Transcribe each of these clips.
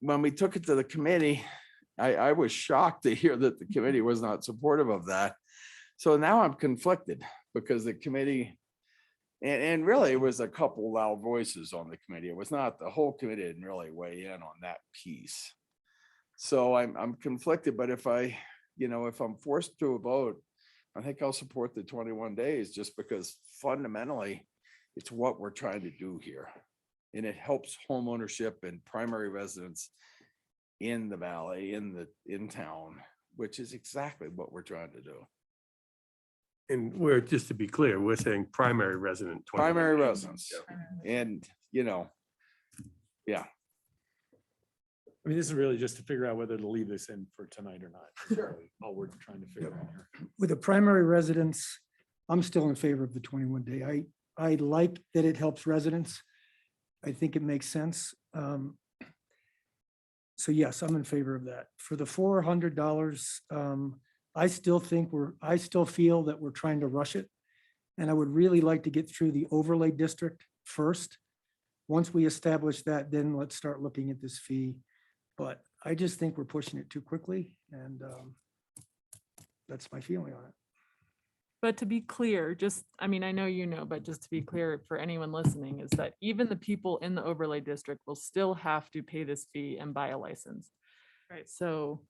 when we took it to the committee, I, I was shocked to hear that the committee was not supportive of that. So now I'm conflicted because the committee, and, and really it was a couple loud voices on the committee. It was not, the whole committee didn't really weigh in on that piece. So I'm, I'm conflicted, but if I, you know, if I'm forced to a vote, I think I'll support the twenty-one days just because fundamentally it's what we're trying to do here. And it helps homeownership and primary residents in the valley, in the, in town, which is exactly what we're trying to do. And we're, just to be clear, we're saying primary resident. 21 Primary days. residents and, you know, I mean, this is really just to figure out whether to leave this in for tonight or not. is really All we're trying to figure out here. with the primary residence, I'm still in favor of the twenty-one day. I, I like that it helps residents. I think it makes sense. Um, So yes, I'm in favor of that. For the four hundred dollars, um, I still think we're, I still feel that we're trying to rush it. And I would really like to get through the overlay district first. Once we establish that, then let's start looking at this fee. But I just think we're pushing it too quickly and um, that's my feeling on it. But to be clear, just, I mean, I know you know, but just to Mm-hmm. be clear for anyone listening is that even the people in the overlay district will still have to pay this fee and buy a license. Right. So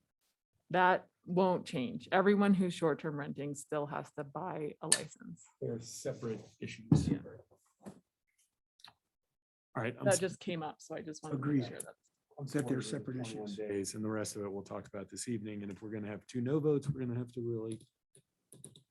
that won't change. Everyone who's short-term renting still has to buy a license. They're separate issues. Yeah. All right. I'm That s- just came up, so I just wanted to Agreed. make sure that. I'm that supportive they're of the separate 21 issues. Days and the rest of it we'll talk about this evening. And if we're going to have two no votes, we're going to have to really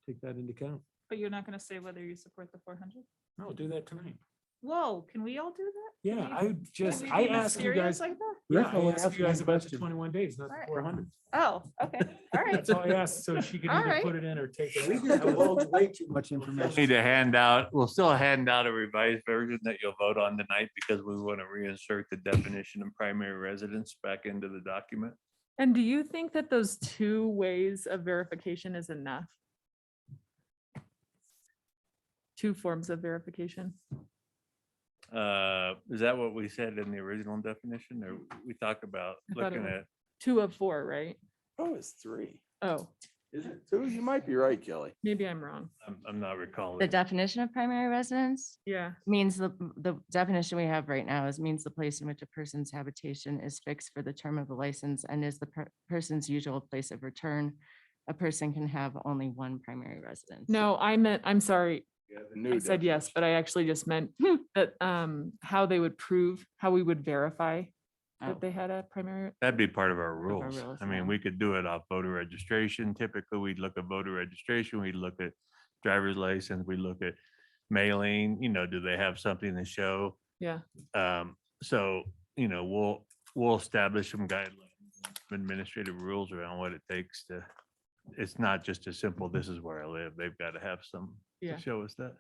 take that into account. But you're not gonna say whether you support the four hundred? No, do that tonight. Whoa, can we all do that? Yeah, Can we- I can just, we I be asked you serious guys. Like that? Yeah, Rachel I was asked asking you guys the about the question. twenty-one days, not the Right. four hundred. Oh, okay, all right. That's all I asked, so she could All either right. put it in or take it. We just out. divulged way too much We'll Need information. to hand out, we'll still hand out a revised version that you'll vote on tonight because we want to reinsert the definition of primary residence back into the document. And do you think that those two ways of verification is enough? Two forms of verification? Uh, Is that what we said in the original definition or we talked about I thought it looking was- at? Two of four, right? oh, it's three. Oh, Is it two? You might be right, Kelly. maybe I'm wrong. I'm- I'm not recalling. The definition of primary residence Yeah. means the, the definition we have right now is means the place in which a person's habitation is fixed for the term of the license and is the per- person's usual place of return. A person can have only one primary residence. No, I meant, I'm sorry, I New said yes, but I actually just meant that um how they would prove, how we would verify Oh. that they had a primary. That'd be part of our rules. rules, I yeah. mean, we could do it off voter registration. Typically, we'd look at voter registration, we'd look at driver's license, we look at mailing, you know, do they have something to show? Yeah. Um, so, you know, we'll, we'll establish some guidelines, administrative rules around what it takes to, it's not just as simple, this is where I live. They've got to have some Yeah. to show us that.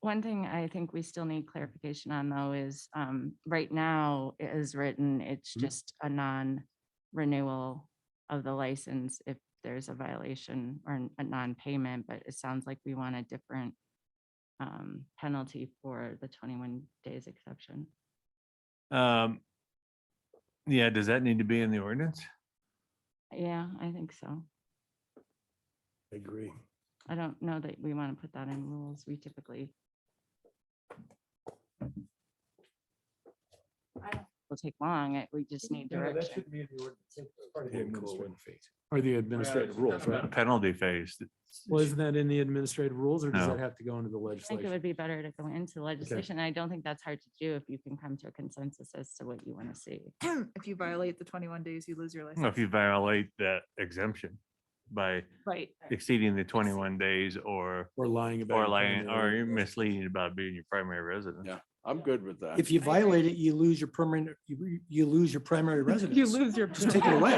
One thing I think we still need clarification on though is, um, right now it is written, it's Mhm. just a non-renewal of the license if there's a violation or n- a non-payment, but it sounds like we want a different um, penalty for the twenty-one days exception. Um, yeah, does that need to be in the ordinance? Yeah, I think so. I agree. I don't know that we want to put that in rules. We typically will take long. it- We just need direction. Or the administrative rules, right? Penalty phase. Well, isn't that in the administrative rules or does No. that have to go into the I think it legislation? would be better to go into legislation. I don't think that's hard to do if you can come to a consensus as to what you want to see. If you violate the twenty-one days, you lose your Well, If you license. violate that exemption by Right. exceeding the twenty-one days or, Or lying about. or your lying, primary or residence. misleading about being your primary residence. Yeah. I'm good with that. If you agree. violate it, you lose your permanent, you, you lose your primary residence. You lose your. Just take it away.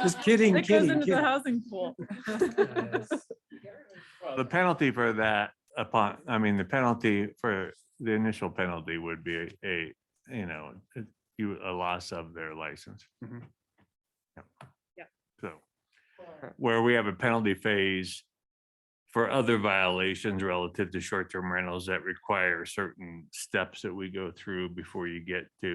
Just kidding, It goes kidding, into the kidding. housing pool. The penalty for that upon, I mean, the penalty for the initial penalty would be a- a, you know, a- you, a loss of their license. Mhm. Yep. Yep. So where we have a penalty phase for other violations relative to short-term rentals that require certain steps that we go through before you get to